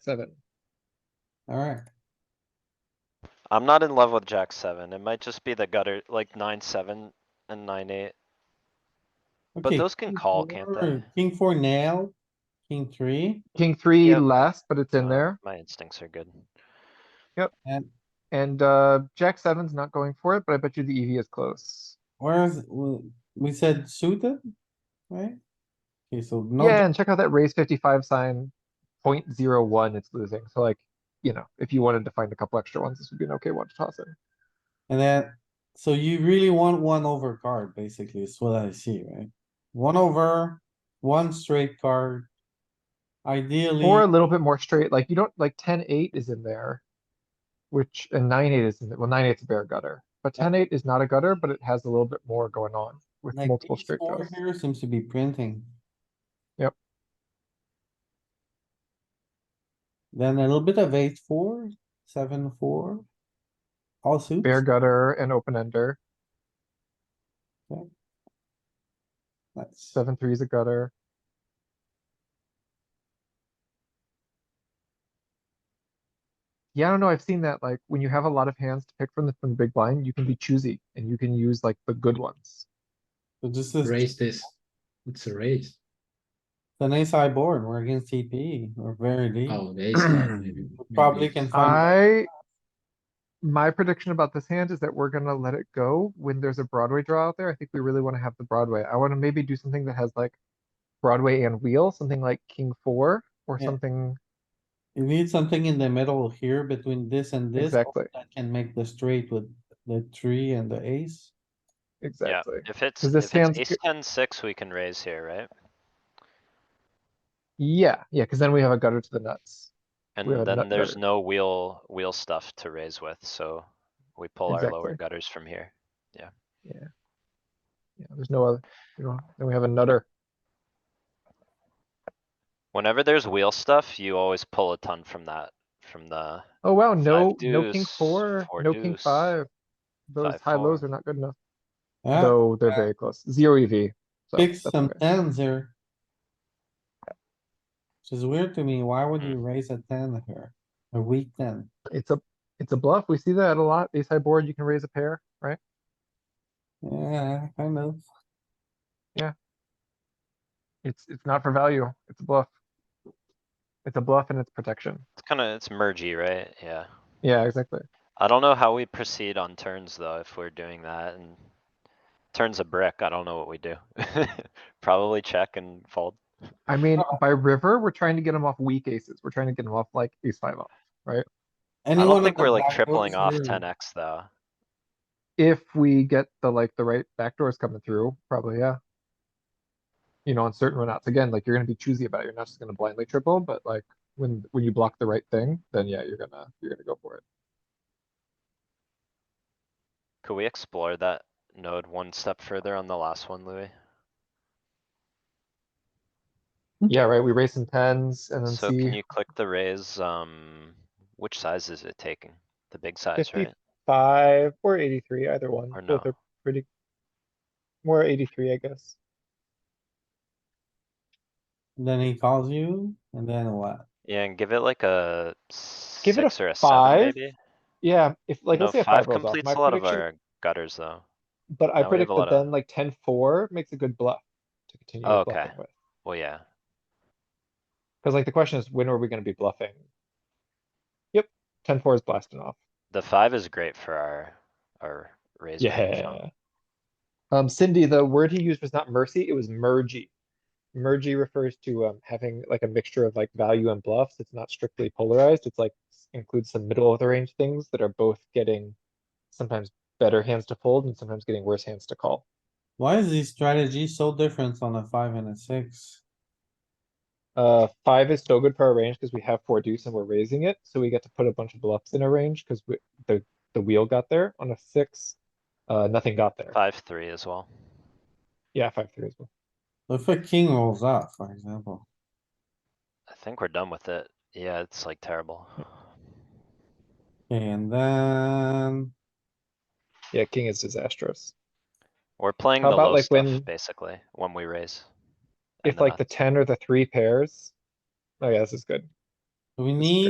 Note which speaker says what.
Speaker 1: seven.
Speaker 2: Alright,
Speaker 3: I'm not in love with jack seven. It might just be the gutter, like nine, seven and nine, eight. But
Speaker 2: okay.
Speaker 3: those can
Speaker 2: king
Speaker 3: call, can't
Speaker 2: four-
Speaker 3: they?
Speaker 2: King four nail, king three,
Speaker 4: King three
Speaker 3: Yep.
Speaker 4: last, but it's in
Speaker 3: Uh,
Speaker 4: there.
Speaker 3: My instincts are good.
Speaker 2: and
Speaker 4: And, uh, Jack seven's not going for it, but I bet you the EV is close.
Speaker 2: where's, we we said suited, right? Okay, so no,
Speaker 4: Yeah,
Speaker 2: jack-
Speaker 4: and check out that raise fifty-five sign, point zero one, it's losing. So like, you know, if you wanted to find a couple extra ones, this would be an okay one to toss in.
Speaker 2: and then, so you really want one over card, basically, is what I see, right? One over, one straight card. Ideally,
Speaker 4: Or a little bit more straight, like you don't, like ten eight is in there. Which, and nine eight is, in there. well, nine eight's a bare gutter, but
Speaker 2: Yeah.
Speaker 4: ten eight is not a gutter, but it has a little bit more going on with
Speaker 2: like
Speaker 4: multiple
Speaker 2: these
Speaker 4: straight
Speaker 2: four
Speaker 4: draws.
Speaker 2: here seems to be printing.
Speaker 4: Yep.
Speaker 2: Then a little bit of eight, four, seven, four. All suits.
Speaker 4: Bare gutter and open ender,
Speaker 2: That's-
Speaker 4: seven three is a gutter. Yeah, I don't know, I've seen that, like, when you have a lot of hands to pick from the, from the big blind, you can be choosy and you can use like the good ones.
Speaker 2: So this is
Speaker 1: Raise
Speaker 2: it's
Speaker 1: this. It's a raise.
Speaker 2: an ace high board. We're against TP. We're very deep.
Speaker 1: Oh, the ace nine, maybe. maybe
Speaker 2: Probably
Speaker 1: it's-
Speaker 2: can
Speaker 4: I,
Speaker 2: find,
Speaker 4: my prediction about this hand is that we're gonna let it go when there's a Broadway draw out there. I think we really wanna have the Broadway. I wanna maybe do something that has like Broadway and wheel, something like king four or
Speaker 2: Yeah.
Speaker 4: something.
Speaker 2: you need something in the middle here between this and this.
Speaker 4: Exactly.
Speaker 2: That can make the straight with the three and the ace.
Speaker 3: Yeah,
Speaker 4: Exactly.
Speaker 3: if it's,
Speaker 4: 'Cause
Speaker 3: if
Speaker 4: this
Speaker 3: it's
Speaker 4: hand's
Speaker 3: ace
Speaker 4: good-
Speaker 3: ten six, we can raise here, right?
Speaker 4: Yeah, yeah, cuz then we have a gutter to the nuts. have a
Speaker 3: And
Speaker 4: nut
Speaker 3: then there's
Speaker 4: gutter.
Speaker 3: no wheel, wheel stuff to raise with, so we pull our lower
Speaker 4: Exactly.
Speaker 3: gutters from here.
Speaker 4: Yeah, there's no other, you know, then we have a nutter.
Speaker 3: Whenever there's wheel stuff, you always pull a ton from that, from the,
Speaker 4: Oh wow, no, no king
Speaker 3: deuce,
Speaker 4: four,
Speaker 3: four
Speaker 4: no king
Speaker 3: deuce,
Speaker 4: five. Those
Speaker 3: five
Speaker 4: high lows
Speaker 3: four.
Speaker 4: are not good enough,
Speaker 2: Yeah.
Speaker 4: though they're
Speaker 2: yeah.
Speaker 4: very close. Zero EV. so
Speaker 2: Ah. Pick
Speaker 4: that's
Speaker 2: some
Speaker 4: okay.
Speaker 2: tens here. Which is weird to me, why would you
Speaker 3: Hmm.
Speaker 2: raise a ten here? A weak ten,
Speaker 4: It's a, it's a bluff. We see that a lot. Ace high board, you can raise a pair, right?
Speaker 2: yeah, kind of,
Speaker 4: It's, it's not for value. It's a bluff. It's a bluff and it's protection.
Speaker 3: it's kinda, it's mergy, right? Yeah.
Speaker 4: Yeah, exactly.
Speaker 3: I don't know how we proceed on turns though, if we're doing that and turns a brick, I don't know what we do. Probably check and fold.
Speaker 4: I mean,
Speaker 2: Oh.
Speaker 4: by river, we're trying to get them off weak aces. We're trying to get them off like ace five off.
Speaker 3: I don't
Speaker 2: Anyone
Speaker 3: think
Speaker 2: with a
Speaker 3: we're like
Speaker 2: back door
Speaker 3: tripling
Speaker 2: is
Speaker 3: off
Speaker 2: weird.
Speaker 3: ten X though.
Speaker 4: If we get the, like, the right backdoors coming through, probably, yeah. You know, on certain runouts, again, like, you're gonna be choosy about it. You're not just gonna blindly triple, but like, when, when you block the right thing, then yeah, you're gonna, you're gonna go for it.
Speaker 3: Could we explore that node one step further on the last one, Louis?
Speaker 4: Yeah, right? We raise some tens and then
Speaker 3: So can
Speaker 4: see
Speaker 3: you click the raise, um, which size is it taking? The big size,
Speaker 4: 50.
Speaker 3: right?
Speaker 4: five or eighty-three, either one.
Speaker 3: Or
Speaker 4: Both
Speaker 3: no?
Speaker 4: are pretty. More eighty-three, I guess.
Speaker 2: Then he calls you, and then what?
Speaker 3: Yeah, and give it like a
Speaker 4: Give it a
Speaker 3: six or a seven
Speaker 4: five.
Speaker 3: maybe?
Speaker 4: Yeah, if like,
Speaker 3: No,
Speaker 4: let's say a five
Speaker 3: five
Speaker 4: rolls off,
Speaker 3: completes
Speaker 4: my
Speaker 3: a lot of
Speaker 4: prediction-
Speaker 3: our gutters though.
Speaker 4: but I
Speaker 3: no, we have
Speaker 4: predict
Speaker 3: a
Speaker 4: that
Speaker 3: lot of-
Speaker 4: then like ten four makes a good bluff. To continue
Speaker 3: Oh,
Speaker 4: with
Speaker 3: okay.
Speaker 4: bluffing with,
Speaker 3: Well, yeah,
Speaker 4: cause like the question is, when are we gonna be bluffing? Yep, ten four is blasting off.
Speaker 3: the five is great for our, our raise. range, huh?
Speaker 4: Yeah. Um, Cindy, the word he used was not mercy, it was mergy. Mergy refers to um having like a mixture of like value and bluffs. It's not strictly polarized. It's like s- includes some middle of the range things that are both getting sometimes better hands to fold and sometimes getting worse hands to call.
Speaker 2: Why is this strategy so different on a five and a six?
Speaker 4: Uh, five is so good for our range because we have four deuce and we're raising it, so we get to put a bunch of bluffs in our range because the, the wheel got there on a six. Uh, nothing got there.
Speaker 3: Five, three as well.
Speaker 4: Yeah, five, three as well.
Speaker 2: If a king rolls up, for example,
Speaker 3: I think we're done with it. Yeah, it's like terrible.
Speaker 2: Okay, and then,
Speaker 4: Yeah, king is disastrous.
Speaker 3: We're playing
Speaker 4: How
Speaker 3: the
Speaker 4: about,
Speaker 3: low
Speaker 4: like, when-
Speaker 3: stuff, basically, when we raise.
Speaker 4: If
Speaker 3: And uh, then
Speaker 4: like the ten or the three pairs. Oh yeah, this is good.
Speaker 2: We need